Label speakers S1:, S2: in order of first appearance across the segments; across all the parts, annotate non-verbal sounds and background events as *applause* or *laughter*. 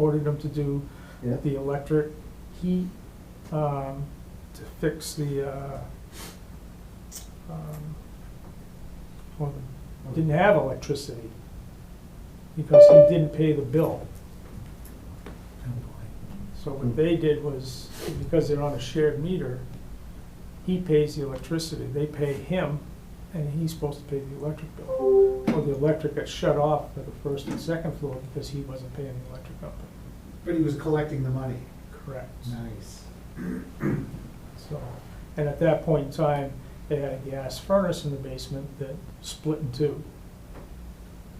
S1: ordered them to do
S2: Yeah.
S1: the electric heat, um, to fix the, uh, um, well, didn't have electricity because he didn't pay the bill. So what they did was, because they're on a shared meter, he pays the electricity, they pay him, and he's supposed to pay the electric bill. Well, the electric got shut off for the first and second floor because he wasn't paying the electric company.
S2: But he was collecting the money.
S1: Correct.
S2: Nice.
S1: So, and at that point in time, they had a gas furnace in the basement that split in two.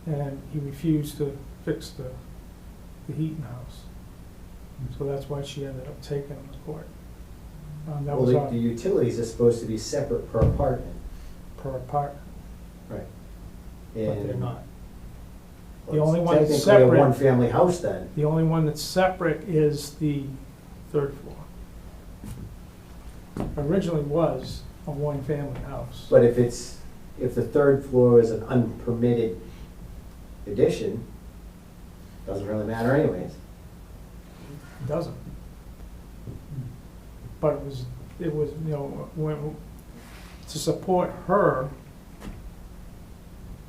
S1: And he refused to fix the, the heat in the house.
S3: Hmm.
S1: So that's why she ended up taking him to court. Um, that
S3: Well,
S1: was
S3: the- the
S1: on
S3: utilities are supposed to be separate per apartment.
S1: per apartment,
S3: Right.
S1: but they're not. The only one that's
S3: Technically
S1: separate-
S3: a one-family house then.
S1: The only one that's separate is the third floor. Originally was a one-family house.
S3: But if it's, if the third floor is an unpermitted addition, doesn't really matter anyways.
S1: It doesn't. But it was, it was, you know, when, to support her,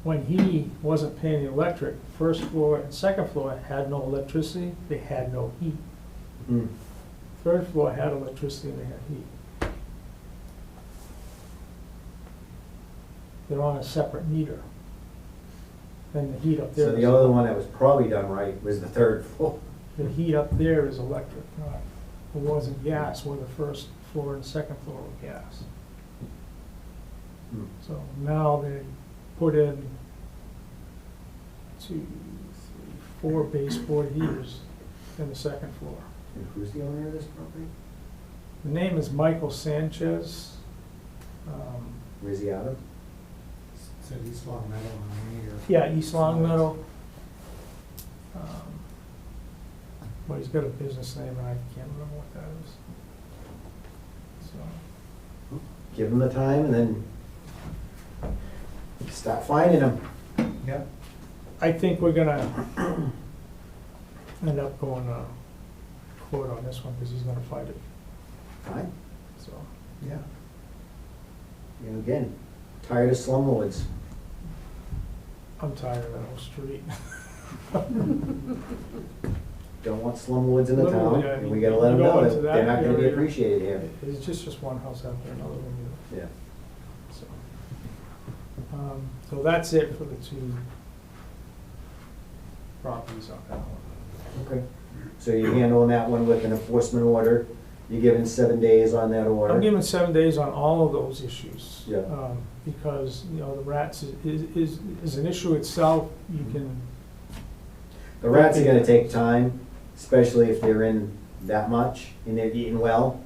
S1: when he wasn't paying the electric, first floor and second floor had no electricity, they had no heat.
S3: Hmm.
S1: Third floor had electricity, they had heat. They're on a separate meter. And the heat up there.
S3: So
S1: is-
S3: the other one that was probably done right was the third *laughs* floor.
S1: the heat up there is electric, not, it wasn't gas, where the first floor and second floor were gas.
S3: Hmm.
S1: So now they put in two, three, four baseboard heaters in the second floor.
S3: And who's the owner of this property?
S1: The name is Michael Sanchez. Um,
S3: Rizziato?
S2: Said East Long Meadow on the meter.
S1: Yeah, East Long Meadow. Um, Well, he's got a business name, and I can't remember what that is. So.
S3: Give them the time and then stop finding them.
S2: Yep.
S1: I think we're gonna end up going to court on this one, because he's gonna fight it,
S3: Fine.
S1: so.
S2: Yeah.
S3: You know, again, tired of slumlords.
S1: I'm tired of that whole street.
S3: Don't want slumlords in the town,
S1: Literally, I
S3: and
S1: mean,
S3: we gotta let them
S1: you go
S3: know
S1: into
S3: that they're
S1: that
S3: not gonna be
S1: area. *laughs*
S3: appreciated here.
S1: It's just, just one house after another one, you
S3: Yeah.
S1: know, so. Um, So that's it for the two properties on that one.
S3: Okay. So you're handling that one with an enforcement order, you're given seven days on that order.
S1: I'm giving seven days on all of those issues.
S3: Yeah.
S1: um, Because, you know, the rats is- is, is an issue itself, you
S3: Mm-hmm.
S1: can,
S3: The rats are gonna take time, especially if they're in that much and they're eating well.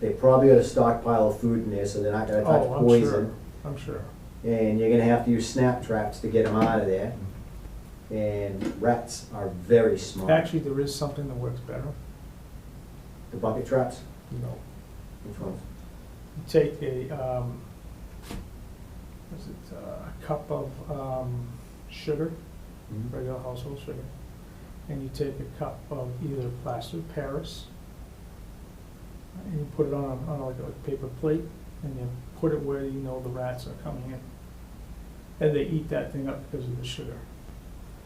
S3: They probably got a stockpile of food in there, so they're not gonna touch
S1: oh, I'm sure,
S3: poison.
S1: I'm sure.
S3: And you're gonna have to use snap traps to get them out of there. And rats are very smart.
S1: Actually, there is something that works better,
S3: The bucket traps,
S1: you know,
S3: which ones?
S1: you take a, um, what's it, uh, a cup of, um, sugar, regular household sugar, and you take a cup of either plaster Paris, and you put it on, a- on like a paper plate, and you put it where you know the rats are coming in. And they eat that thing up because of the sugar.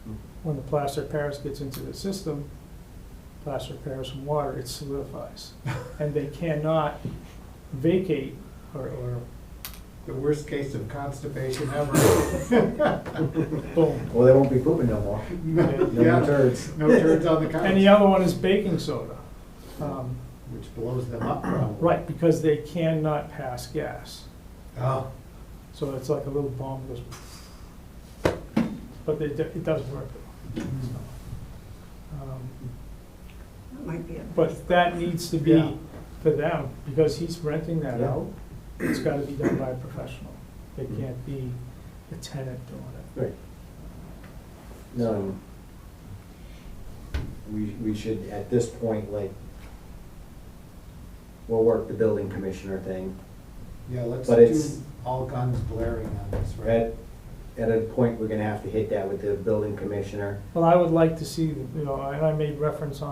S3: Hmm.
S1: When the plaster Paris gets into the system, plaster Paris and water, it solidifies. And they cannot vacate or, or
S2: The worst case of constipation *laughs* ever.
S3: *laughs*
S2: Mm-hmm.
S1: boom.
S3: Well, they won't be pooping no more. No
S2: Yeah.
S3: more turds.
S2: No turds on the couch.
S1: And the other one is baking soda. Um,
S2: Which blows them up probably.
S1: Right, because they cannot pass gas.
S2: Oh,
S1: So it's like a little bomb that goes. But it, it does work. though. Um,
S4: That might be a
S1: But that needs to
S2: Yeah.
S1: be for them, because he's renting that
S3: Yeah.
S1: out. It's gotta be done by a professional. They can't be the tenant doing it.
S3: Right. No. We, we should, at this point, like, we'll work the building commissioner thing.
S2: yeah, let's
S3: But it's-
S2: do all guns blaring on this, right?
S3: At, at a point, we're gonna have to hit that with the building commissioner.
S1: Well, I would like to see, you know, and I made reference on.